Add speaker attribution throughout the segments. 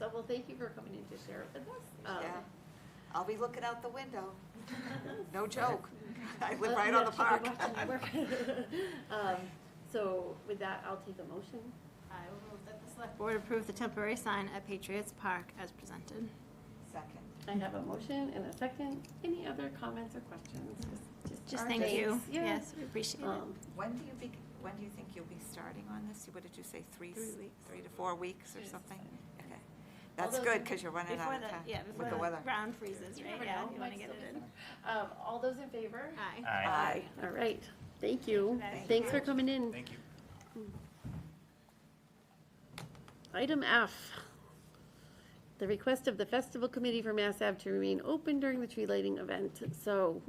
Speaker 1: well, thank you for coming in to share it with us. Um,
Speaker 2: Yeah. I'll be looking out the window. No joke. I live
Speaker 1: uh,
Speaker 2: right
Speaker 1: yeah,
Speaker 2: on the park.
Speaker 1: she'll be watching the work. Um, So with that, I'll take a motion.
Speaker 3: I will move that the select board approve the temporary sign at Patriots Park as presented.
Speaker 2: Second.
Speaker 1: I have a motion and a second. Any other comments or questions?
Speaker 3: Just
Speaker 1: our
Speaker 3: thank you.
Speaker 1: thanks. Yeah.
Speaker 3: Yes, we appreciate it.
Speaker 1: Um,
Speaker 2: When do you be, when do you think you'll be starting on this? What did you say, three?
Speaker 3: Three
Speaker 2: s-
Speaker 3: weeks.
Speaker 2: Three to four weeks or
Speaker 1: Yes.
Speaker 2: something? Okay. That's
Speaker 3: Although
Speaker 2: good, because you're running
Speaker 3: Before
Speaker 2: out of
Speaker 3: the,
Speaker 2: time
Speaker 3: yeah,
Speaker 2: with the
Speaker 3: before the
Speaker 2: weather.
Speaker 3: ground freezes,
Speaker 1: You
Speaker 3: right?
Speaker 1: never
Speaker 3: Yeah,
Speaker 1: know,
Speaker 3: you want to
Speaker 1: might
Speaker 3: get
Speaker 1: still
Speaker 3: it
Speaker 1: be
Speaker 3: in.
Speaker 1: summer. Um, all those in favor?
Speaker 3: Aye.
Speaker 4: Aye.
Speaker 1: All right, thank you.
Speaker 3: Thank
Speaker 1: Thanks for coming in.
Speaker 4: Thank you.
Speaker 1: Item F, the request of the Festival Committee for Mass Ave to remain open during the tree lighting event. So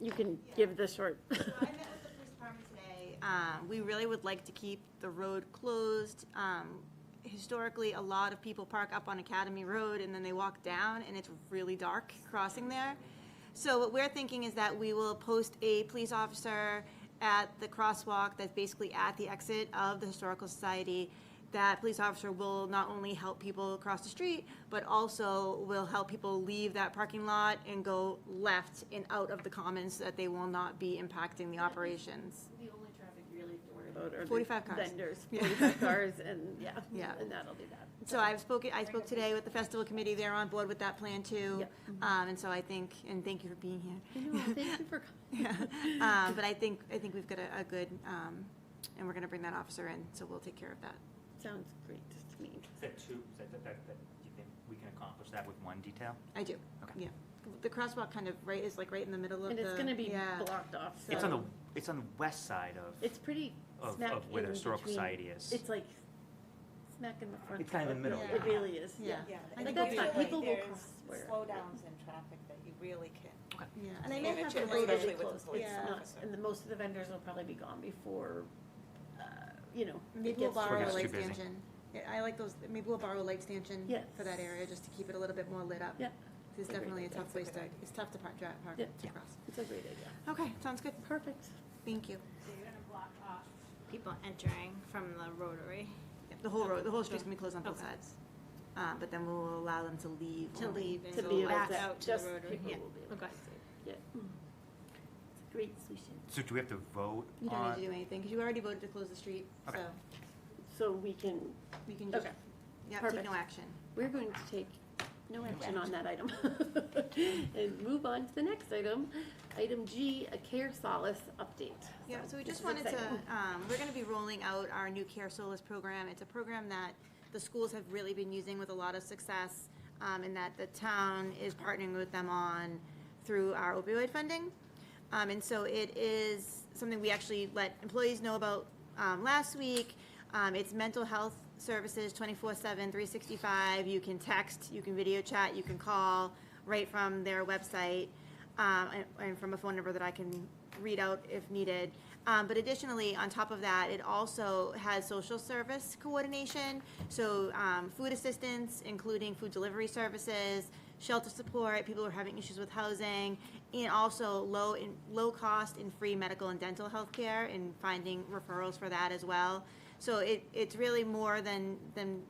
Speaker 1: you can give the short.
Speaker 5: So I met with the police department today. Um, we really would like to keep the road closed. Um, historically, a lot of people park up on Academy Road and then they walk down and it's really dark crossing there. So what we're thinking is that we will post a police officer at the crosswalk that's basically at the exit of the Historical Society. That police officer will not only help people cross the street, but also will help people leave that parking lot and go left and out of the commons so that they will not be impacting the operations.
Speaker 1: The only traffic really to worry about are the
Speaker 5: 45 cars.
Speaker 1: vendors, forty-five cars, and, yeah.
Speaker 5: Yeah.
Speaker 1: And that'll do that.
Speaker 5: So I've spoken, I spoke today with the festival committee, they're on board with that plan too.
Speaker 1: Yep. Mm-hmm.
Speaker 5: Um, and so I think, and thank you for being here.
Speaker 1: No, thank you for coming.
Speaker 5: Um, but I think, I think we've got a, a good, um, and we're gonna bring that officer in, so we'll take care of that.
Speaker 1: Sounds great to me.
Speaker 4: Is that two, is that, that, that, that- you think we can accomplish that with one detail?
Speaker 5: I do.
Speaker 4: Okay.
Speaker 5: Yeah. The crosswalk kind of right, is like right in the middle of
Speaker 1: And
Speaker 5: the.
Speaker 1: it's gonna be
Speaker 5: yeah.
Speaker 1: blocked off, so.
Speaker 4: It's on the, it's on the west side of,
Speaker 1: It's pretty
Speaker 4: of-
Speaker 1: smack
Speaker 4: of where the
Speaker 1: in
Speaker 4: historical
Speaker 1: between.
Speaker 4: society is.
Speaker 1: It's like smack in the front.
Speaker 4: It's kind of in the middle,
Speaker 1: It
Speaker 5: yeah.
Speaker 1: really is, yeah.
Speaker 2: Yeah,
Speaker 5: I think
Speaker 1: that's fine.
Speaker 2: usually
Speaker 1: People will
Speaker 2: there's
Speaker 1: cross where-
Speaker 2: Slowdowns in traffic that you really can.
Speaker 5: Yeah, and I may
Speaker 2: manage
Speaker 5: have
Speaker 2: it
Speaker 1: It's
Speaker 5: the
Speaker 1: really
Speaker 2: Especially with the
Speaker 5: latest,
Speaker 1: close,
Speaker 2: police
Speaker 1: it's
Speaker 5: yeah.
Speaker 1: not,
Speaker 2: officer.
Speaker 1: and the, most of the vendors will probably be gone before, uh, you know. it
Speaker 5: maybe we'll
Speaker 1: gets to
Speaker 5: borrow a
Speaker 4: Before
Speaker 5: light
Speaker 4: it gets too busy.
Speaker 5: stanchion. Yeah, I like those, maybe we'll borrow a light stanchion
Speaker 1: Yes.
Speaker 5: for that area, just to keep it a little bit more lit up.
Speaker 1: Yeah,
Speaker 5: It's
Speaker 1: Agreed.
Speaker 5: definitely a tough
Speaker 1: That's a
Speaker 5: place
Speaker 1: good
Speaker 5: to, it's tough to park, drive, park
Speaker 1: Yeah.
Speaker 5: to cross.
Speaker 1: it's a great idea.
Speaker 5: Okay, sounds good.
Speaker 1: Perfect.
Speaker 5: Thank you.
Speaker 3: People entering from the rotary.
Speaker 5: The whole road, the whole street's gonna be closed on both sides. Uh, but then we'll allow them to leave.
Speaker 3: To
Speaker 5: only.
Speaker 3: leave and
Speaker 1: To
Speaker 3: go
Speaker 1: be able
Speaker 3: back
Speaker 1: to,
Speaker 3: out to the
Speaker 1: just
Speaker 3: rotary.
Speaker 1: people
Speaker 3: Yeah.
Speaker 1: will be able to
Speaker 3: Okay.
Speaker 1: see. Mm. Yeah. It's a Great solution.
Speaker 4: So do we have to vote
Speaker 5: You don't need to
Speaker 4: on?
Speaker 5: do anything, because you already voted to close the street, so
Speaker 4: Okay.
Speaker 1: So we can,
Speaker 5: we can just,
Speaker 1: okay,
Speaker 5: yeah, take
Speaker 1: perfect.
Speaker 5: no action.
Speaker 1: we're going to take no action on that item. And move on to the next item, item G, a care solace update.
Speaker 5: Yeah, so we
Speaker 1: this
Speaker 5: just
Speaker 1: is
Speaker 5: wanted to,
Speaker 1: exciting.
Speaker 5: um, we're gonna be rolling out our new Care Solas program. It's a program that the schools have really been using with a lot of success, um, and that the town is partnering with them on through our opioid funding. Um, and so it is something we actually let employees know about, um, last week. Um, it's mental health services twenty-four seven, three sixty-five. You can text, you can video chat, you can call right from their website um, and, and from a phone number that I can read out if needed. Um, but additionally, on top of that, it also has social service coordination, so um, food assistance, including food delivery services, shelter support, people who are having issues with housing, and also low in, low cost and free medical and dental health care, and finding referrals for that as well. So it, it's really more than than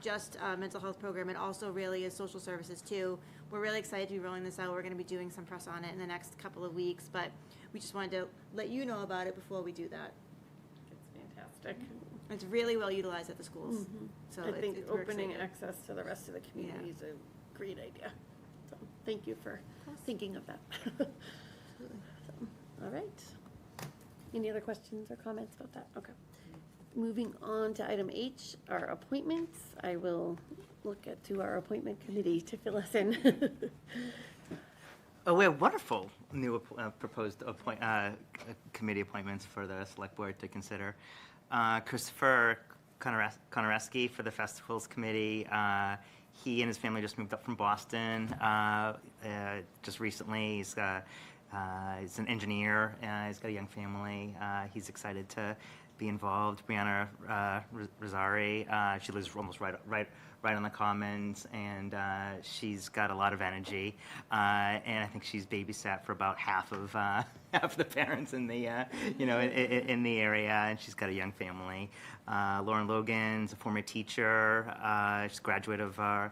Speaker 5: just a mental health program, it also really is social services too. We're really excited to be rolling this out. We're gonna be doing some press on it in the next couple of weeks, but we just wanted to let you know about it before we do that.
Speaker 1: It's fantastic.
Speaker 5: It's really well utilized at the schools,
Speaker 1: Mm-hmm.
Speaker 5: so
Speaker 1: I
Speaker 5: it's,
Speaker 1: think
Speaker 5: it's, we're
Speaker 1: opening
Speaker 5: excited.
Speaker 1: access to the rest of the community is a great idea. So, thank you for thinking of that. So, All right. Any other questions or comments about that? Okay. Moving on to item H, our appointments. I will look at to our appointment committee to fill us in.
Speaker 6: Oh, we have wonderful new app- uh, proposed appoint, uh, c- uh, committee appointments for the select board to consider. Uh, Christopher Konares- Konareski for the festivals committee. Uh, He and his family just moved up from Boston uh, uh, just recently. He's, uh, uh, he's an engineer, uh, he's got a young family. Uh, He's excited to be involved. Brianna uh, Ros- Rosari, uh, she lives almost right, right, right on the Commons, and uh, she's got a lot of energy. Uh, and I think she's babysat for about half of uh, half the parents in the uh, you know in, in, in the area, and she's got a young family. Uh, Lauren Logan's a former teacher. Uh, she's a graduate of our